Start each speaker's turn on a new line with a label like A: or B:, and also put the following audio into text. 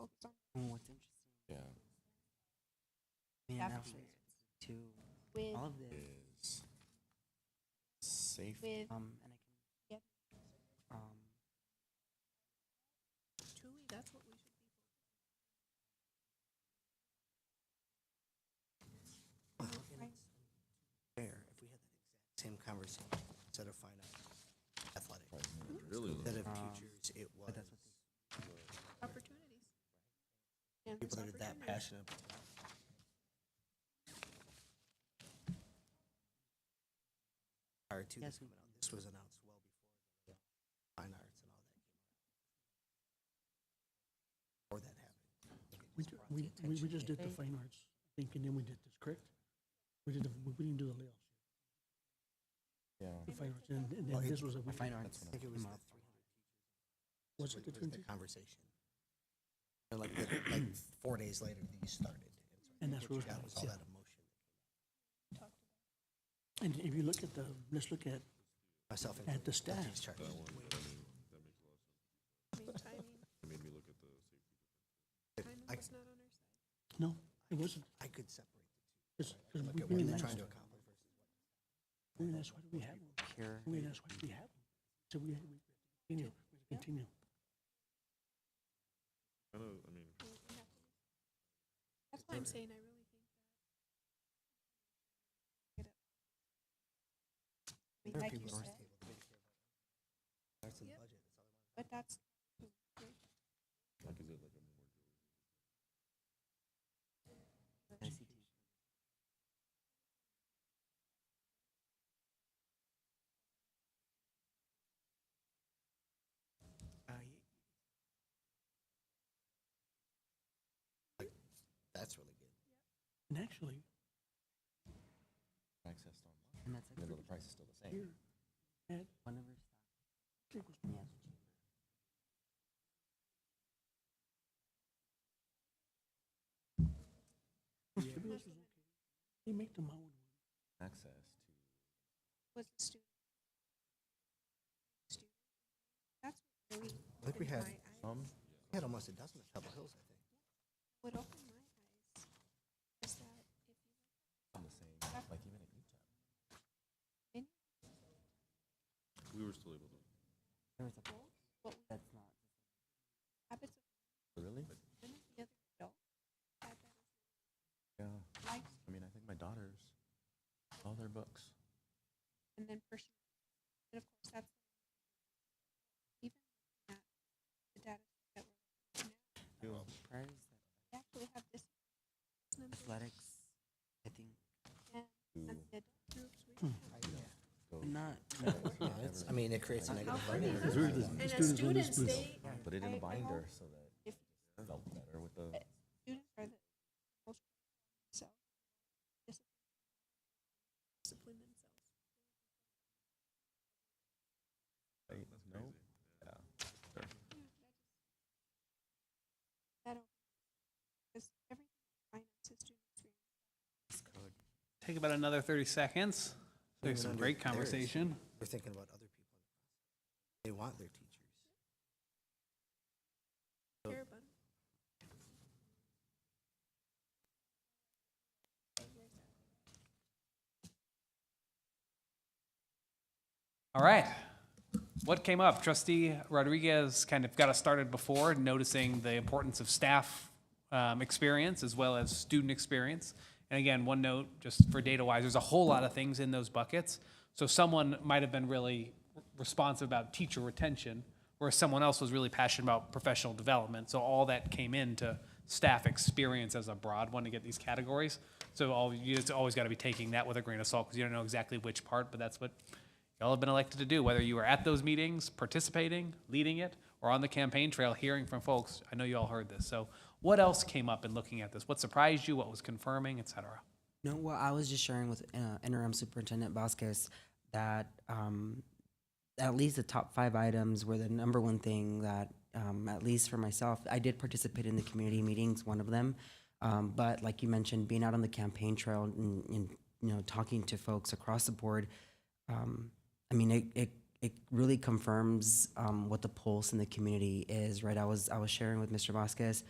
A: Oh, it's interesting.
B: Yeah.
A: Man, I was
C: Afterwards.
A: to
C: with
A: all of this.
B: Is safe.
C: with
A: Um, and I can.
C: Yep.
A: Um,
C: Tui. That's what we should be.
D: Well,
C: Oh,
D: and
C: right.
D: it's fair if we had that exact same conversation instead of finite athletic,
B: Really?
D: instead
E: Uh,
D: of
A: Um,
D: futures, it was
A: but that's what
C: Opportunities. And
D: people that are that
C: opportunities.
D: passionate. about it. Prior to this
A: Yes, we-
D: coming out, this was announced well before the fine arts and all that came out. Or that happened.
E: We, ju- we, we we just did the fine arts thing, and then we did this, correct? We did, the we we didn't do the layoffs,
B: Yeah.
E: the fine arts, and, and
D: Well,
E: then
D: it-
E: this was a,
A: I
E: week-
A: find
B: That's
A: arts.
B: what
D: I think it was the
A: tomorrow.
D: 300
E: was it the
D: was
E: twenty?
D: the conversation. And like, the- like four days later, these started. so I
E: And
D: think
E: that's
D: what you
E: what it
D: got
E: was,
D: was all
E: yeah.
D: that emotion,
E: And if you look at the, let's look at,
D: myself
E: at the
D: included.
E: staff,
C: I mean, timing. Timing
D: I-
C: was not on our side.
E: no, it wasn't,
D: I could separate
E: because,
D: the two.
E: because we,
D: Look at
E: we,
D: what they're
E: that's,
D: trying to accomplish versus
E: we, that's why we have, them.
A: Pure.
E: we, that's why we have, them. so we, we continue, we continue.
C: We- we have to- That's why I'm saying I really think that. I mean,
D: what
C: like you
D: people are
C: said,
D: able to take care of. That's in the
C: Yep.
D: budget. That's all they want.
C: but that's
A: ICT. Uh, y-
D: That's really good.
E: And actually,
B: Access online.
A: and that's
B: Even
A: like
B: though the price is still the
E: here,
B: same.
E: at,
A: one of our stock.
E: it was
A: Yeah.
E: Everything else was okay. They make the mountain.
B: Access to
C: was the student. Student. That's what really.
D: I think we
C: opened
D: had
C: my eyes.
B: some.
D: We had almost a dozen at Pebble Hills, I think.
C: What opened my eyes is that if you
B: on the same, like even at UTEP.
A: There was a
C: look at what we-
A: that's not.
C: habits of
B: Really?
C: one of the other adults had that
B: Yeah.
C: life
B: I mean, I think my daughters, all their books.
C: and then personal. And of course, that's even at the data that we're looking at
A: Priors
C: now. We actually have this
A: that
C: number
A: athletics, I think.
B: Who
C: and the adult groups we
E: Hmm.
C: have.
B: go.
A: Not.
D: No, it's, I mean, it creates a
A: How
D: negative.
C: funny
D: environment.
C: is
E: Because we were the
C: And as
E: students on this
C: students,
E: blue-
C: they
B: Put it in
C: I-
B: a
C: I
B: binder
C: hope
B: so that
C: if
B: it felt better with the.
C: students are the most so discipline, discipline themselves.
B: Wait, no? Yeah.
C: Yeah, that just- That because everything finance is student experience.
F: Take about another 30 seconds. There's some
D: Even
F: great
D: under theirs.
F: conversation.
D: We're thinking about other people. They want their teachers. So-
C: care about it.
F: All right. What came up? Trustee Rodriguez kind of got us started before, noticing the importance of staff um, experience as well as student experience. And again, one note just for data wise, there's a whole lot of things in those buckets. So someone might have been really responsive about teacher retention, whereas someone else was really passionate about professional development. So all that came into staff experience as a broad one to get these categories. So all you just always got to be taking that with a grain of salt because you don't know exactly which part, but that's what y'all have been elected to do, whether you were at those meetings, participating, leading it, or on the campaign trail hearing from folks. I know you all heard this. So what else came up in looking at this? What surprised you? What was confirming, et cetera?
A: No, well, I was just sharing with uh, interim superintendent Vasquez that um, at least the top five items were the number one thing that, um, at least for myself, I did participate in the community meetings, one of them. Um, but like you mentioned, being out on the campaign trail and, and you know talking to folks across the board, um, I mean, it, it, it really confirms um, what the pulse in the community is, right? I was I was sharing with Mr. Vasquez